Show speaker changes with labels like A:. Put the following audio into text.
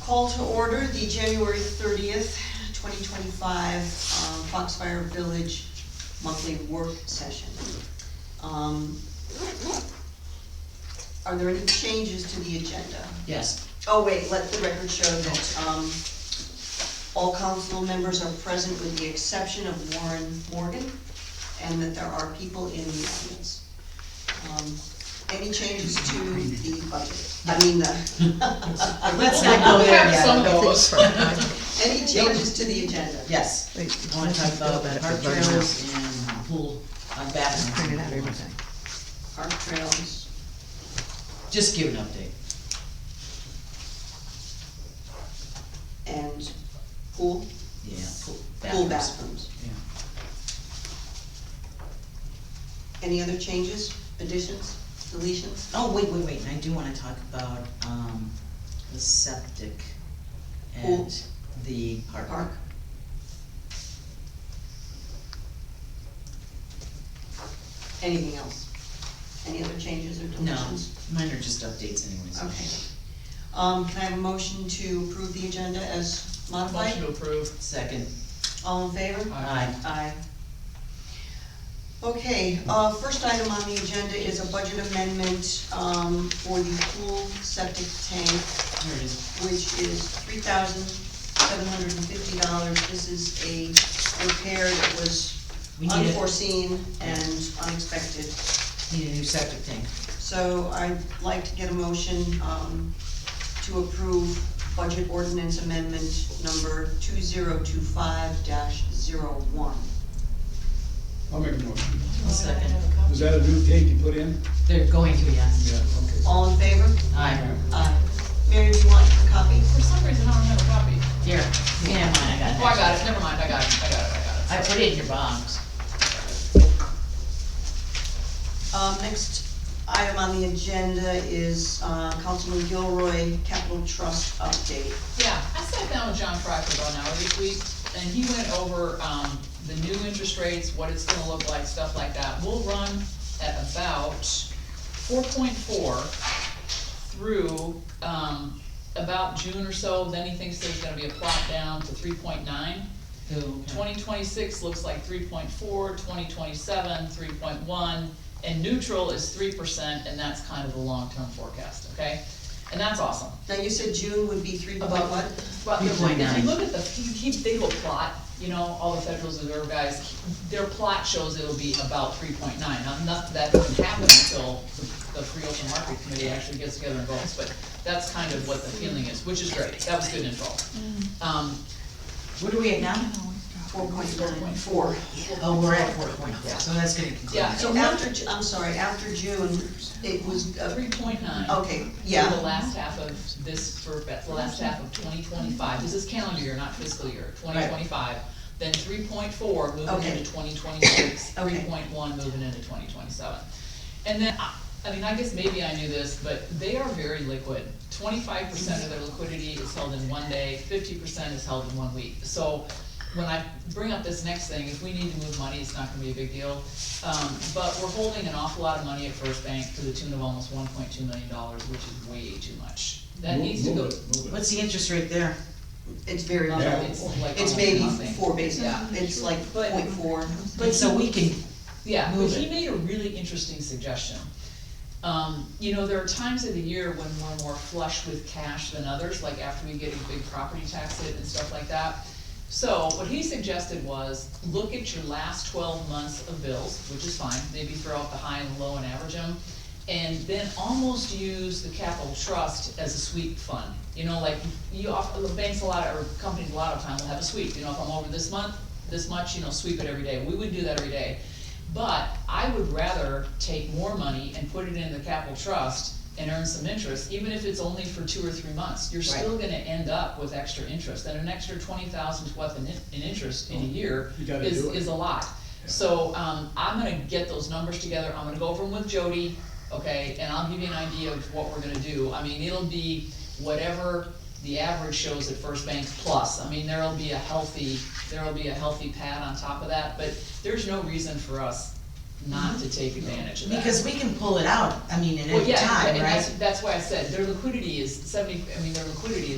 A: Call to order the January thirtieth, twenty twenty-five, uh, Foxfire Village monthly work session. Um, Are there any changes to the agenda?
B: Yes,
A: Oh, wait, let the record show that, um, all council members are present with the exception of Warren Morgan, and that there are people in the audience. Um, Any changes to the budget? I mean, the.
B: let's not go there yet.
C: Some goes.
A: Any changes to the agenda?
B: Yes,
C: Wait,
B: I wanna talk about
C: Go back to
B: park
C: budget.
B: trails and pool, uh,
C: Printed out
B: bathrooms.
C: everything.
A: Park trails,
B: Just give an update.
A: and pool,
B: Yeah, pool,
A: pool
B: bathrooms.
A: bathrooms.
B: Yeah.
A: Any other changes, additions, deletions?
B: Oh, wait, wait, wait, and I do wanna talk about, um, the septic
A: Pool.
B: and the park.
A: Park? Anything else? Any other changes or
B: No,
A: deletions?
B: mine are just updates anyways.
A: Okay. Um, can I have a motion to approve the agenda as
C: Motion
A: modified?
C: to approve.
B: Second,
A: All in favor?
B: aye,
A: Aye. Okay, uh, first item on the agenda is a budget amendment, um, for the pool septic tank,
B: here it is.
A: which is three thousand seven hundred and fifty dollars. This is a repair that was
B: We need a,
A: unforeseen and unexpected.
B: need a new septic tank.
A: So I'd like to get a motion, um, to approve budget ordinance amendment number two zero two five dash zero one.
D: I'll make a motion.
B: I'll second.
D: Is that a new tank you put in?
B: They're going to, yes.
D: Yeah, okay.
A: All in favor?
B: Aye,
A: Aye. Mary, do you want a copy?
C: For some reason, I don't have a copy.
B: here, you can have mine, I got it.
C: Oh, I got it, never mind, I got it, I got it, I got it.
B: I put it in your box.
A: Um, next item on the agenda is, uh, Councilman Gilroy, Capital Trust update.
C: Yeah, I sat down with John Crocker about an hour this week, and he went over, um, the new interest rates, what it's gonna look like, stuff like that. We'll run at about four point four through, um, about June or so, then he thinks there's gonna be a plot down to three point nine.
B: Who-
C: Twenty twenty-six looks like 3.4, 2027, 3.1, and neutral is three percent, and that's kind of the long-term forecast, okay? And that's awesome.
A: Now, you said June would be three, about what?
C: But if you- if
B: 3.9.
C: you look at the, he, he, they will plot, you know, all the Federal Reserve guys, their plot shows it'll be about three point nine. Now, not, that doesn't happen until the Free Open Market Committee actually gets together and votes, but that's kind of what the feeling is, which is great, that was good info. Um,
B: What are we at now?
A: Four point nine.
C: four.
B: Oh, we're at four point four, so that's gonna continue.
C: Yeah.
A: So after, Ju- I'm sorry, after June, it was, uh,
C: Three point nine.
A: okay,
C: For the
A: yeah,
C: last half of this, for the last half of twenty twenty-five, this is calendar year, not fiscal year, twenty twenty-five. Then three point four moving
A: Okay.
C: into twenty twenty-six,
A: Okay.
C: three point one moving into twenty twenty-seven. And then, I, I mean, I guess maybe I knew this, but they are very liquid. Twenty-five percent of their liquidity is held in one day, fifty percent is held in one week. So when I bring up this next thing, if we need to move money, it's not gonna be a big deal. Um, but we're holding an awful lot of money at First Bank to the tune of almost one point two million dollars, which is way too much. That
D: Move-
C: needs to go,
D: move it, move it.
B: What's the interest rate there?
A: it's very low.
D: Yeah.
C: it's like
A: It's
C: almost
A: maybe
C: nothing.
A: four basis,
C: Yeah.
A: it's like
C: But-
A: point four.
B: But so we can,
C: Yeah, but
B: Move
C: he
B: it.
C: made a really interesting suggestion. Um, you know, there are times of the year when we're more flush with cash than others, like after we get a big property tax hit and stuff like that. So what he suggested was, look at your last twelve months of bills, which is fine, maybe throw out the high and the low and average them. And then almost use the capital trust as a sweep fund, you know, like you offer, the banks a lot, or companies a lot of time will have a sweep, you know, if I'm over this month, this much, you know, sweep it every day, we would do that every day. But I would rather take more money and put it in the capital trust and earn some interest, even if it's only for two or three months. You're still gonna end up with extra interest, and an extra twenty thousand worth in, in interest in a year
D: You gotta
C: is,
D: do it.
C: is a lot. So, um, I'm gonna get those numbers together, I'm gonna go over them with Jody, okay, and I'll give you an idea of what we're gonna do. I mean, it'll be whatever the average shows at First Bank plus, I mean, there'll be a healthy, there'll be a healthy pad on top of that, but there's no reason for us not to take advantage of that.
B: because we can pull it out, I mean, at
C: Well,
B: any
C: yeah,
B: time,
C: and that's,
B: right?
C: that's why I said, their liquidity is seventy, I mean, their liquidity